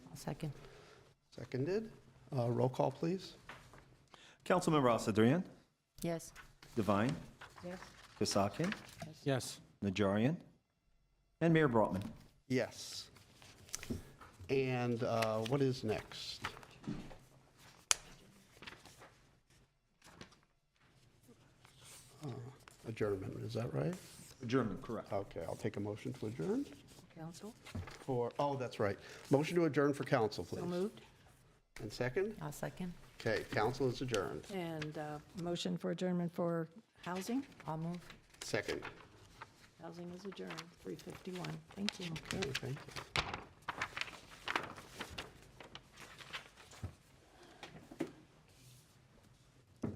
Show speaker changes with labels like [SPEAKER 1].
[SPEAKER 1] Second.
[SPEAKER 2] Seconded. Uh, Roll call, please.
[SPEAKER 3] Councilmember Al Sadrian,
[SPEAKER 1] Yes.
[SPEAKER 3] Devine,
[SPEAKER 1] Yes.
[SPEAKER 3] Kasakian,
[SPEAKER 4] Yes.
[SPEAKER 3] Najarian, and Mayor Brotman.
[SPEAKER 2] Yes. And uh, what is next? Uh, Adjournment, is that right?
[SPEAKER 3] Adjournment, correct.
[SPEAKER 2] Okay, I'll take a motion to adjourn
[SPEAKER 1] Council.
[SPEAKER 2] for, oh, that's right. Motion to adjourn for council, please.
[SPEAKER 1] So moved.
[SPEAKER 2] And second?
[SPEAKER 1] I'll second.
[SPEAKER 2] Okay, council is adjourned.
[SPEAKER 5] And uh, motion for adjournment for housing?
[SPEAKER 1] I'll move.
[SPEAKER 2] Second.
[SPEAKER 5] Housing is adjourned, 351. Thank you.
[SPEAKER 2] Okay, thank you.